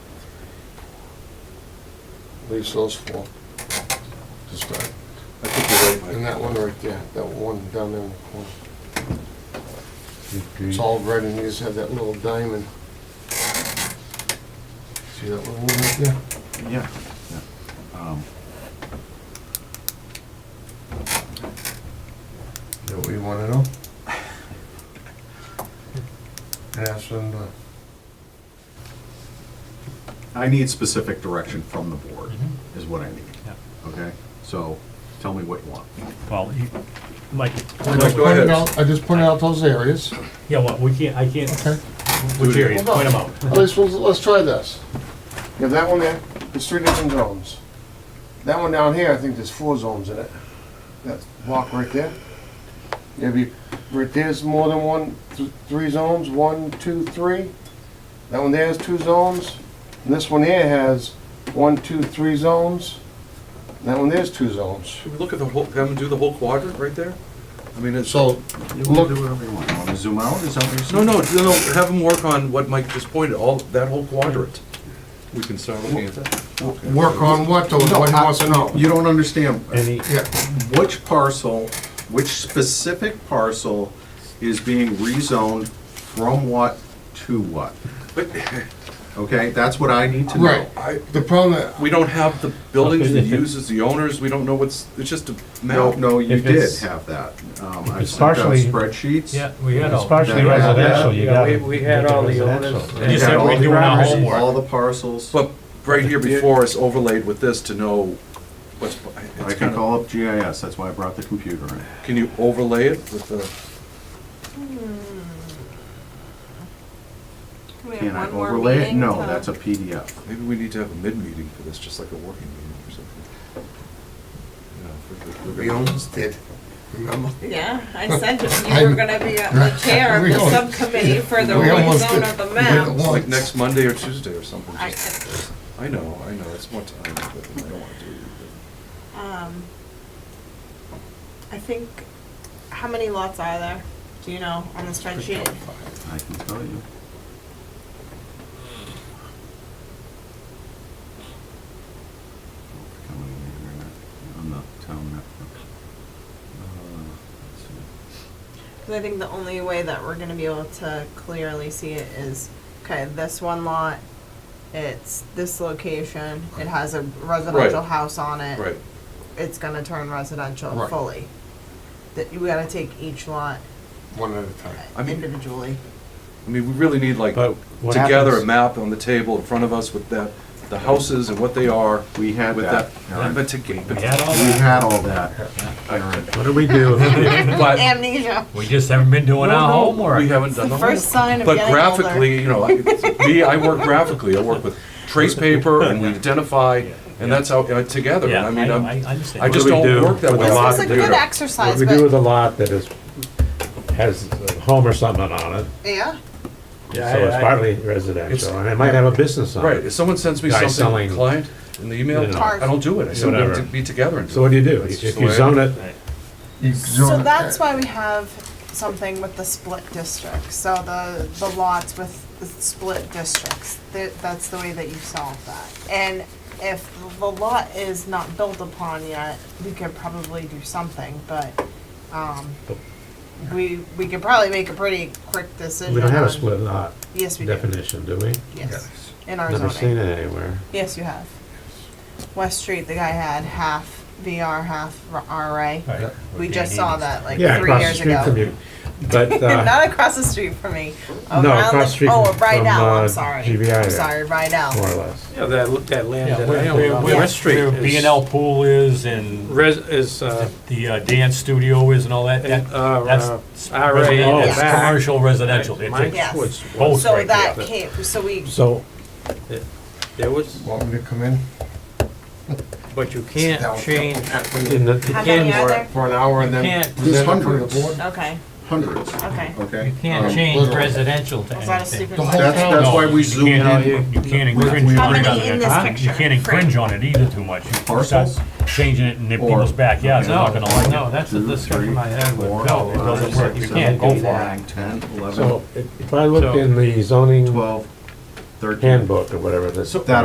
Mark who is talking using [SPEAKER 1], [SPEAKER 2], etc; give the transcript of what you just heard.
[SPEAKER 1] leaves those four to start.
[SPEAKER 2] I think you're right,
[SPEAKER 1] And
[SPEAKER 2] Mike.
[SPEAKER 1] that one right there, that one down there in the corner.
[SPEAKER 3] Fifteen.
[SPEAKER 1] It's all red and you just have that little diamond. See that little one right there?
[SPEAKER 2] Yeah.
[SPEAKER 3] Um,
[SPEAKER 1] Is that what you wanna know? And ask them to
[SPEAKER 2] I need specific direction from the board,
[SPEAKER 4] Mm-hmm.
[SPEAKER 5] Mhm.
[SPEAKER 2] is what I need,
[SPEAKER 5] Yeah.
[SPEAKER 2] okay? So, tell me what you want.
[SPEAKER 5] Well, you- like,
[SPEAKER 1] I just
[SPEAKER 2] go ahead.
[SPEAKER 1] pointed out, I just pointed out those areas,
[SPEAKER 5] yeah, well, we can't, I can't,
[SPEAKER 1] okay?
[SPEAKER 5] we can't
[SPEAKER 1] Well,
[SPEAKER 5] point them
[SPEAKER 1] no.
[SPEAKER 5] out.
[SPEAKER 1] Let's, let's- let's try this. You have that one there, there's three different zones. That one down here, I think there's four zones in it. That block right there. Maybe, right there's more than one, th- three zones, one, two, three. That one there has two zones, and this one here has one, two, three zones. And That one there's two zones.
[SPEAKER 6] Should we look at the whole, have them do the whole quadrant right there? I mean, it's.
[SPEAKER 1] So,
[SPEAKER 2] You can
[SPEAKER 1] Look-
[SPEAKER 2] do whatever you want. You wanna zoom out, is that what you're
[SPEAKER 6] No,
[SPEAKER 2] saying?
[SPEAKER 6] no, no, no, have them work on what Mike just pointed, all, that whole quadrant. We can start looking at that.
[SPEAKER 1] work on what, though, what he wants to know.
[SPEAKER 2] You don't understand.
[SPEAKER 5] Any,
[SPEAKER 1] Yeah,
[SPEAKER 2] Which parcel, which specific parcel is being rezoned from what to what?
[SPEAKER 6] But
[SPEAKER 2] Okay, that's what I need to know.
[SPEAKER 1] right. The problem that
[SPEAKER 6] we don't have the buildings, the
[SPEAKER 5] Okay.
[SPEAKER 6] uses, the owners, we don't know what's, it's just a
[SPEAKER 2] No,
[SPEAKER 6] map.
[SPEAKER 2] no, you
[SPEAKER 4] If
[SPEAKER 2] did
[SPEAKER 4] it's-
[SPEAKER 2] have that. Um,
[SPEAKER 4] if
[SPEAKER 2] I
[SPEAKER 4] it's
[SPEAKER 2] sent out
[SPEAKER 4] partially-
[SPEAKER 2] spreadsheets.
[SPEAKER 5] yeah, we had
[SPEAKER 4] It's
[SPEAKER 5] all.
[SPEAKER 4] partially
[SPEAKER 2] Yeah, yeah.
[SPEAKER 4] residential, you
[SPEAKER 3] Yeah,
[SPEAKER 4] got.
[SPEAKER 3] we- we had all the owners.
[SPEAKER 2] You
[SPEAKER 5] Just
[SPEAKER 2] had
[SPEAKER 5] that
[SPEAKER 2] all
[SPEAKER 5] we're
[SPEAKER 2] the
[SPEAKER 5] doing our
[SPEAKER 2] owners,
[SPEAKER 5] homework.
[SPEAKER 2] All the parcels.
[SPEAKER 6] But right here before us overlaid with this to know what's,
[SPEAKER 2] I
[SPEAKER 6] it's
[SPEAKER 2] can
[SPEAKER 6] kind of,
[SPEAKER 2] call up GIS, that's why I brought the computer in.
[SPEAKER 6] can you overlay it with the,
[SPEAKER 7] Hmm. We have
[SPEAKER 2] Can I
[SPEAKER 7] one more
[SPEAKER 2] overlay it?
[SPEAKER 7] meeting
[SPEAKER 2] No,
[SPEAKER 7] to-
[SPEAKER 2] that's a PDF.
[SPEAKER 6] maybe we need to have a mid-meeting for this, just like a working meeting or something. You know, if we're- if we're
[SPEAKER 1] we
[SPEAKER 6] gonna-
[SPEAKER 1] almost did, remember?
[SPEAKER 7] Yeah, I said you were gonna be the chair of
[SPEAKER 1] We
[SPEAKER 7] the
[SPEAKER 1] almost-
[SPEAKER 7] subcommittee for the
[SPEAKER 1] we almost
[SPEAKER 7] rezone
[SPEAKER 1] did.
[SPEAKER 7] of the
[SPEAKER 1] We
[SPEAKER 7] map.
[SPEAKER 1] did it
[SPEAKER 6] Like
[SPEAKER 1] Once.
[SPEAKER 6] next Monday or Tuesday or something.
[SPEAKER 7] I,
[SPEAKER 6] just- I know, I know, it's more time, but I don't want to do it.
[SPEAKER 7] um, I think, how many lots are there? Do you know, on the spreadsheet?
[SPEAKER 2] I can tell you. Coming in here, On the town map. Uh, let's see.
[SPEAKER 7] Cause I think the only way that we're gonna be able to clearly see it is, okay, this one lot, it's this location, it has a residential
[SPEAKER 6] Right.
[SPEAKER 7] house on it.
[SPEAKER 6] Right,
[SPEAKER 7] It's gonna turn residential
[SPEAKER 1] Right.
[SPEAKER 7] fully. That, you gotta take each lot
[SPEAKER 1] One at a time.
[SPEAKER 6] I mean-
[SPEAKER 7] individually.
[SPEAKER 6] I mean, we really need like,
[SPEAKER 4] But what
[SPEAKER 6] together a
[SPEAKER 4] happens-
[SPEAKER 6] map on the table in front of us with that, the houses and what they are.
[SPEAKER 2] We had
[SPEAKER 6] With
[SPEAKER 2] that,
[SPEAKER 6] that,
[SPEAKER 2] Aaron.
[SPEAKER 6] but to get,
[SPEAKER 5] We had
[SPEAKER 6] but
[SPEAKER 5] all
[SPEAKER 2] We
[SPEAKER 5] that.
[SPEAKER 2] had all that, Aaron.
[SPEAKER 4] What do we do?
[SPEAKER 6] but-
[SPEAKER 7] Amnesia.
[SPEAKER 5] We just haven't been doing
[SPEAKER 6] No,
[SPEAKER 5] our
[SPEAKER 6] no,
[SPEAKER 5] homework.
[SPEAKER 6] We haven't
[SPEAKER 7] It's
[SPEAKER 6] done
[SPEAKER 7] the
[SPEAKER 6] the
[SPEAKER 7] first
[SPEAKER 6] homework.
[SPEAKER 7] sign of
[SPEAKER 6] But
[SPEAKER 7] getting older.
[SPEAKER 6] graphically, you know, I- me, I work graphically, I work with trace paper and we identify, and that's how, uh, together, and
[SPEAKER 5] Yeah,
[SPEAKER 6] I mean,
[SPEAKER 5] I-
[SPEAKER 6] I'm,
[SPEAKER 5] I understand.
[SPEAKER 6] I just
[SPEAKER 4] What do we
[SPEAKER 6] don't
[SPEAKER 4] do
[SPEAKER 6] work that
[SPEAKER 4] with
[SPEAKER 6] way.
[SPEAKER 4] the
[SPEAKER 7] This
[SPEAKER 4] lot of
[SPEAKER 7] was a
[SPEAKER 4] data?
[SPEAKER 7] good
[SPEAKER 4] What
[SPEAKER 7] exercise,
[SPEAKER 4] we do with
[SPEAKER 7] but,
[SPEAKER 4] a lot that is, has a home or something on it,
[SPEAKER 7] yeah,
[SPEAKER 4] so it's partly residential, and it might have a business on
[SPEAKER 6] Right,
[SPEAKER 4] it.
[SPEAKER 6] if someone sends me
[SPEAKER 4] Guy
[SPEAKER 6] something,
[SPEAKER 4] selling-
[SPEAKER 6] client, in the email,
[SPEAKER 4] You know.
[SPEAKER 6] I don't do it, I send them to
[SPEAKER 4] Whatever.
[SPEAKER 6] be together and do it.
[SPEAKER 4] So what do you do?
[SPEAKER 6] That's
[SPEAKER 4] If
[SPEAKER 6] just the way
[SPEAKER 4] you
[SPEAKER 6] I
[SPEAKER 4] zone
[SPEAKER 6] do
[SPEAKER 4] it,
[SPEAKER 7] so that's why we have something with the split districts, so the, the lots with the split districts, that, that's the way that you solve that. And if the lot is not built upon yet, we could probably do something, but, um, we, we could probably make a pretty quick decision.
[SPEAKER 4] we don't have a
[SPEAKER 7] on-
[SPEAKER 4] split lot
[SPEAKER 7] Yes, we do,
[SPEAKER 4] definition, do we?
[SPEAKER 7] yes, in our zoning.
[SPEAKER 4] Never seen it anywhere.
[SPEAKER 7] Yes, you have. West Street, the guy had half VR, half R- RA.
[SPEAKER 5] Right. E.
[SPEAKER 7] We just saw that like
[SPEAKER 4] Yeah,
[SPEAKER 7] three
[SPEAKER 4] across the
[SPEAKER 7] years
[SPEAKER 4] street
[SPEAKER 7] ago.
[SPEAKER 4] from you, but, uh,
[SPEAKER 7] Not across the street from me.
[SPEAKER 4] No,
[SPEAKER 7] Around
[SPEAKER 4] across the street
[SPEAKER 7] Oh,
[SPEAKER 4] from-
[SPEAKER 7] Rydell.
[SPEAKER 4] from, uh,
[SPEAKER 7] I'm sorry.
[SPEAKER 4] GBI
[SPEAKER 7] I'm
[SPEAKER 4] there.
[SPEAKER 7] sorry, Rydell.
[SPEAKER 4] more or less.
[SPEAKER 8] Yeah, that, that
[SPEAKER 5] Yeah,
[SPEAKER 8] land that I
[SPEAKER 5] where-
[SPEAKER 8] own
[SPEAKER 5] Where
[SPEAKER 8] on
[SPEAKER 5] where-
[SPEAKER 8] West Street
[SPEAKER 5] where
[SPEAKER 8] is.
[SPEAKER 5] B and L pool is and
[SPEAKER 8] Res, is, uh,
[SPEAKER 5] the uh, dance studio is and all that, that,
[SPEAKER 8] and, uh, uh,
[SPEAKER 5] that's.
[SPEAKER 8] RA in
[SPEAKER 5] Oh,
[SPEAKER 8] the
[SPEAKER 5] it's
[SPEAKER 8] back.
[SPEAKER 5] Commercial residential, It
[SPEAKER 8] Mike
[SPEAKER 5] takes
[SPEAKER 7] Yes.
[SPEAKER 8] Schwartz,
[SPEAKER 5] both
[SPEAKER 7] So
[SPEAKER 5] right
[SPEAKER 7] that
[SPEAKER 5] there.
[SPEAKER 7] came. So we.
[SPEAKER 4] So,
[SPEAKER 8] there was,
[SPEAKER 1] Want me to come in?
[SPEAKER 8] but you
[SPEAKER 1] That
[SPEAKER 8] can't
[SPEAKER 1] was-
[SPEAKER 8] change,
[SPEAKER 4] in the,
[SPEAKER 7] How many are there?
[SPEAKER 1] For an hour and then.
[SPEAKER 8] You can't-
[SPEAKER 1] present it to the
[SPEAKER 2] There's hundreds.
[SPEAKER 1] board?
[SPEAKER 7] Okay.
[SPEAKER 2] hundreds,
[SPEAKER 7] Okay.
[SPEAKER 2] okay?
[SPEAKER 5] You can't
[SPEAKER 2] Um,
[SPEAKER 5] change
[SPEAKER 1] literally.
[SPEAKER 5] residential to
[SPEAKER 7] Was that a
[SPEAKER 5] anything.
[SPEAKER 7] stupid
[SPEAKER 1] The whole
[SPEAKER 7] question?
[SPEAKER 2] That's, that's why we zoom
[SPEAKER 5] You can't
[SPEAKER 2] in.
[SPEAKER 5] in- You can't infringe
[SPEAKER 7] How
[SPEAKER 5] on it.
[SPEAKER 7] many in this
[SPEAKER 5] Huh?
[SPEAKER 7] picture?
[SPEAKER 5] You can't infringe on it either too much. You start
[SPEAKER 2] Parcels?
[SPEAKER 5] Changing it in the
[SPEAKER 2] Or-
[SPEAKER 5] people's backyards, they're not gonna like it.
[SPEAKER 8] no, that's a
[SPEAKER 2] Two,
[SPEAKER 8] discussion I
[SPEAKER 2] three,
[SPEAKER 8] had with
[SPEAKER 2] four,
[SPEAKER 8] Bill. It
[SPEAKER 2] five,
[SPEAKER 8] doesn't work.
[SPEAKER 2] six,
[SPEAKER 8] You can't
[SPEAKER 2] seven,
[SPEAKER 8] do
[SPEAKER 2] eight,
[SPEAKER 8] that.
[SPEAKER 2] nine, Ten, eleven,
[SPEAKER 4] so if I look in the zoning
[SPEAKER 2] twelve, thirteen.
[SPEAKER 4] handbook or whatever, that's.
[SPEAKER 2] That